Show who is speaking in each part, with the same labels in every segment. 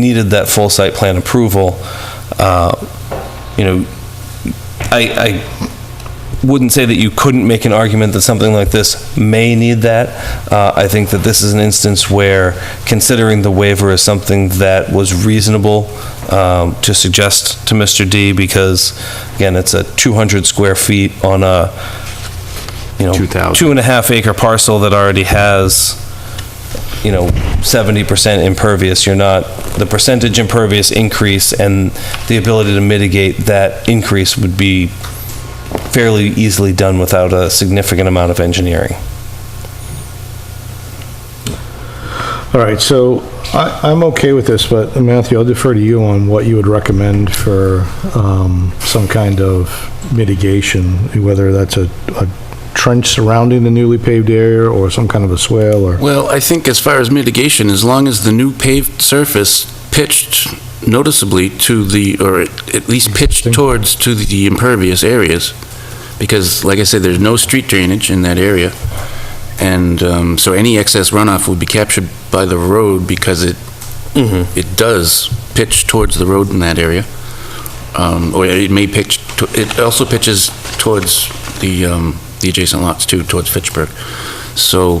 Speaker 1: needed that full site plan approval, uh, you know, I, I wouldn't say that you couldn't make an argument that something like this may need that. Uh, I think that this is an instance where considering the waiver is something that was reasonable um, to suggest to Mr. D, because, again, it's a 200 square feet on a, you know,
Speaker 2: 2,000.
Speaker 1: two and a half acre parcel that already has, you know, 70% impervious, you're not, the percentage impervious increase and the ability to mitigate that increase would be fairly easily done without a significant amount of engineering.
Speaker 3: All right, so I, I'm okay with this, but Matthew, I'll defer to you on what you would recommend for um, some kind of mitigation, whether that's a a trench surrounding the newly paved area or some kind of a swale or,
Speaker 2: Well, I think as far as mitigation, as long as the new paved surface pitched noticeably to the, or at at least pitched towards to the impervious areas, because like I said, there's no street drainage in that area, and um, so any excess runoff would be captured by the road because it,
Speaker 1: Mm-hmm.
Speaker 2: it does pitch towards the road in that area. Um, Or it may pitch, to- it also pitches towards the, um, the adjacent lots too, towards Fitchburg. So,
Speaker 4: I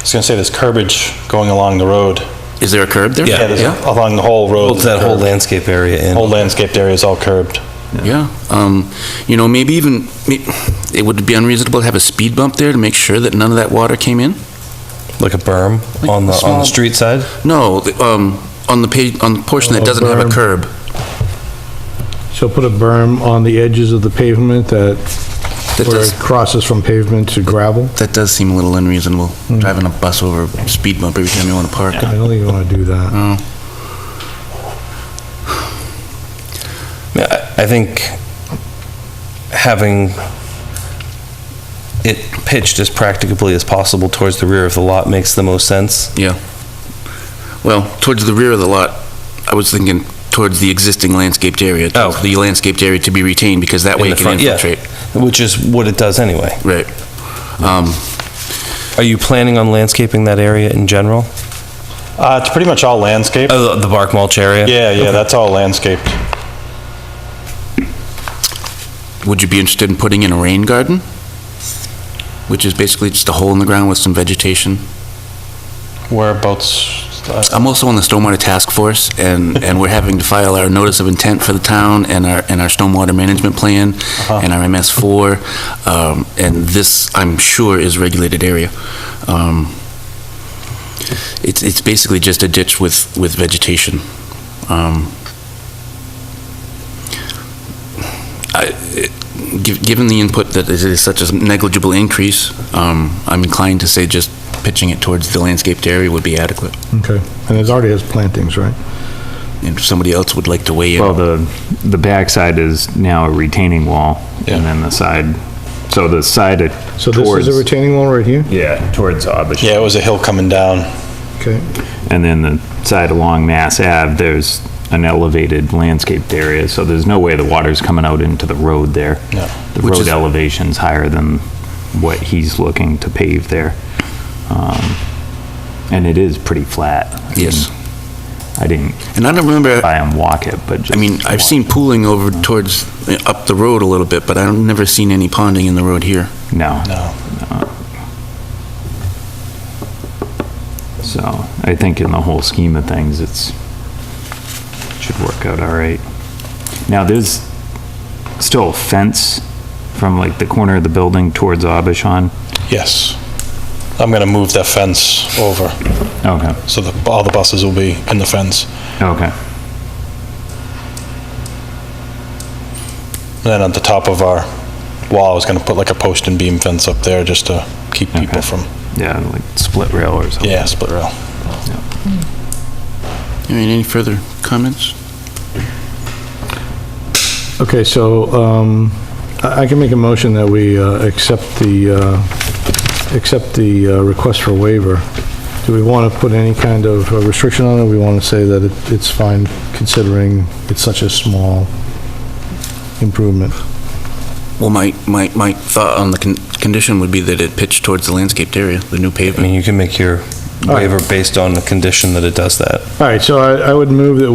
Speaker 4: was gonna say, there's curbage going along the road.
Speaker 2: is there a curb there?
Speaker 4: Yeah, there's a- along the whole road.
Speaker 1: Holds that whole landscape area in.
Speaker 4: Whole landscaped area is all curbed.
Speaker 2: Yeah, um, you know, maybe even, me- it would be unreasonable to have a speed bump there to make sure that none of that water came in?
Speaker 1: Like a berm on the, on the
Speaker 2: small-
Speaker 1: street side?
Speaker 2: No, the, um, on the page, on the portion
Speaker 1: Oh,
Speaker 2: that doesn't have a
Speaker 3: Berm.
Speaker 2: curb.
Speaker 3: so put a berm on the edges of the pavement that,
Speaker 2: That
Speaker 3: where
Speaker 2: does,
Speaker 3: it crosses from pavement to gravel?
Speaker 2: that does seem a little unreasonable,
Speaker 1: Hmm.
Speaker 2: driving a bus over a speed bump every time you want to park.
Speaker 3: I don't think you want to do that.
Speaker 2: Oh,
Speaker 1: Yeah, I I think having it pitched as practicably as possible towards the rear of the lot makes the most sense.
Speaker 2: yeah. Well, towards the rear of the lot, I was thinking towards the existing landscaped area. towards
Speaker 1: Oh.
Speaker 2: The landscaped area to be retained, because that
Speaker 1: in
Speaker 2: way
Speaker 1: the
Speaker 2: it can
Speaker 1: front, yeah,
Speaker 2: infiltrate.
Speaker 1: Which is what it does anyway.
Speaker 2: Right. Um,
Speaker 1: Are you planning on landscaping that area in general?
Speaker 4: Uh, it's pretty much all landscaped.
Speaker 1: Oh, the bark mulch area?
Speaker 4: Yeah, yeah, that's all landscaped.
Speaker 2: Would you be interested in putting in a rain garden? Which is basically just a hole in the ground with some vegetation.
Speaker 4: Whereabouts, uh,
Speaker 2: I'm also on the stormwater task force, and, and we're having to file our notice of intent for the town and our, and our stormwater management plan and our MS4, um, and this, I'm sure, is regulated area. Um, It's, it's basically just a ditch with, with vegetation. Um, I- it- gi- Given the input that it is such a negligible increase, um, I'm inclined to say just pitching it towards the landscaped area would be adequate
Speaker 3: Okay, and it already has plantings, right?
Speaker 2: and if somebody else would like to weigh
Speaker 5: Well,
Speaker 2: in.
Speaker 5: the, the backside is now a retaining wall, and then the side, so the side it-
Speaker 3: So this is
Speaker 5: towards,
Speaker 3: a retaining wall right here?
Speaker 5: yeah, towards Abish.
Speaker 4: yeah, it was a hill coming down.
Speaker 3: Okay,
Speaker 5: And then the side along Mass Ave, there's an elevated landscaped area, so there's no way the water's coming out into the road there.
Speaker 4: No.
Speaker 5: The
Speaker 2: Which
Speaker 5: road
Speaker 2: is-
Speaker 5: elevation's higher than what he's looking to pave there. Um, And it is pretty flat. I mean,
Speaker 2: Yes.
Speaker 5: I didn't
Speaker 2: And I don't remember,
Speaker 5: buy him walk it, but just.
Speaker 2: I mean, I've
Speaker 5: walk.
Speaker 2: seen pooling over towards, uh, up the road a little bit, but I've never seen any ponding in the road here.
Speaker 5: No.
Speaker 4: No.
Speaker 5: So I think in the whole scheme of things, it's, should work out all right. Now, there's still a fence from like the corner of the building towards Abishon.
Speaker 4: Yes. I'm gonna move that fence over,
Speaker 5: Okay,
Speaker 4: so the, all the buses will be in the fence.
Speaker 5: okay.
Speaker 4: And then at the top of our wall, I was gonna put like a post and beam fence up there just to keep people
Speaker 5: Okay.
Speaker 4: from,
Speaker 5: Yeah, like split rail or something.
Speaker 4: yeah, split rail.
Speaker 2: All right, any further comments?
Speaker 3: okay, so um, I I can make a motion that we uh, accept the, uh, accept the uh, request for waiver. Do we want to put any kind of uh, restriction on it? We want to say that it- it's fine considering it's such a small improvement.
Speaker 2: Well, my, my, my thought on the con- condition would be that it pitched towards the landscaped area, the new
Speaker 1: I
Speaker 2: pavement.
Speaker 1: mean, you can make your
Speaker 3: waiver based on the condition that it does that.
Speaker 1: All right, so I I would move that